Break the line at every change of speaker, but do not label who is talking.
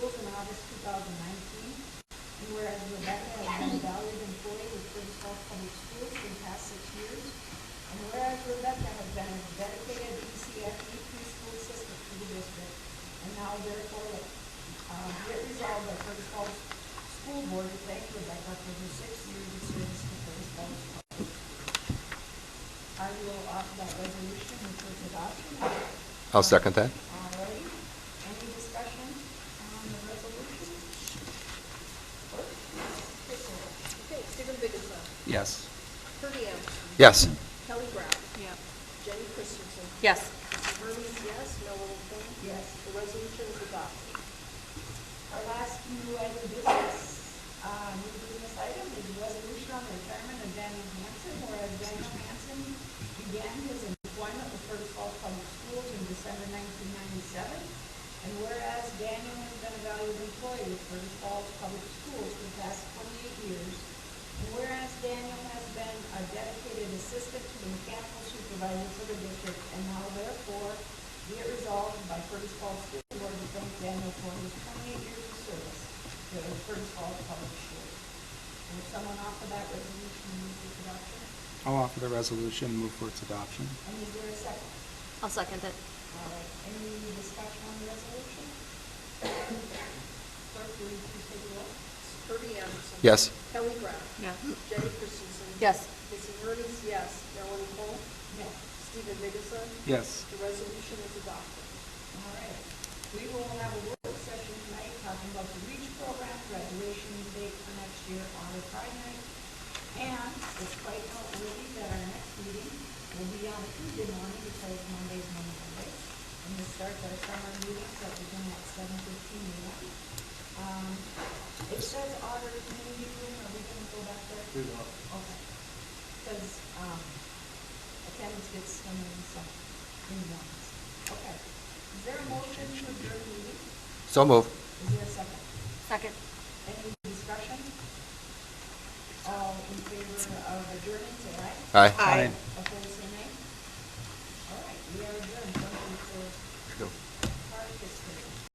thousand nineteen. And whereas Rebecca has been a valued employee with First Gulf Public Schools for the past six years. And whereas Rebecca has been a dedicated E ECFE preschool assistant to the district. And now therefore, uh, be it resolved by First Gulf School Board to thank Rebecca for her six years of service to First Gulf Public. I will offer that resolution which was adopted.
I'll second that.
All righty, any discussion on the resolution?
Okay, Stephen Biggessa.
Yes.
Purdy
Yes.
Kelly Brown.
Yeah.
Jenny Christensen.
Yes.
Hermes, yes. Noel King.
Yes.
The resolution is adopted.
Our last new item of business, uh, new business item is a resolution on the retirement of Daniel Hanson, whereas Daniel Hanson began his employment with First Gulf Public Schools in December nineteen ninety-seven. And whereas Daniel has been a valued employee with First Gulf Public Schools for the past twenty-eight years. And whereas Daniel has been a dedicated assistant to the mechanical supervisor for the district, and now therefore be it resolved by Curtis Falls School Board to thank Daniel for his twenty-eight years of service to the Curtis Falls Public School. And if someone offer that resolution, move for adoption,
I'll offer the resolution, move for its adoption.
and is there a second?
I'll second it.
All right, any discussion on the resolution? Clerk, will you please take the roll?
Herbie Anderson.
Yes.
Kelly Brown.
Yeah.
Jenny Christensen.
Yes.
Missy Hermes, yes. Noel King.
Yes.
Stephen Biggessa.
Yes.
The resolution is adopted.
All right. We will have a work session tonight talking about the REACH program, graduation date for next year on the Pride night. And it's quite noteworthy that our next meeting will be on Tuesday morning because Monday's Monday Monday. And we start our summer meetings that begin at seven fifteen AM. Um, It says auditor community room, are we gonna go back there? We will. Okay. Because, um, attendance gets some in some, in ones. Okay. Is there a motion to adjourn the meeting?
So move.
Is there a second?
Second.
Any discussion? All in favor of adjournment, say aye.
Aye.
Aye.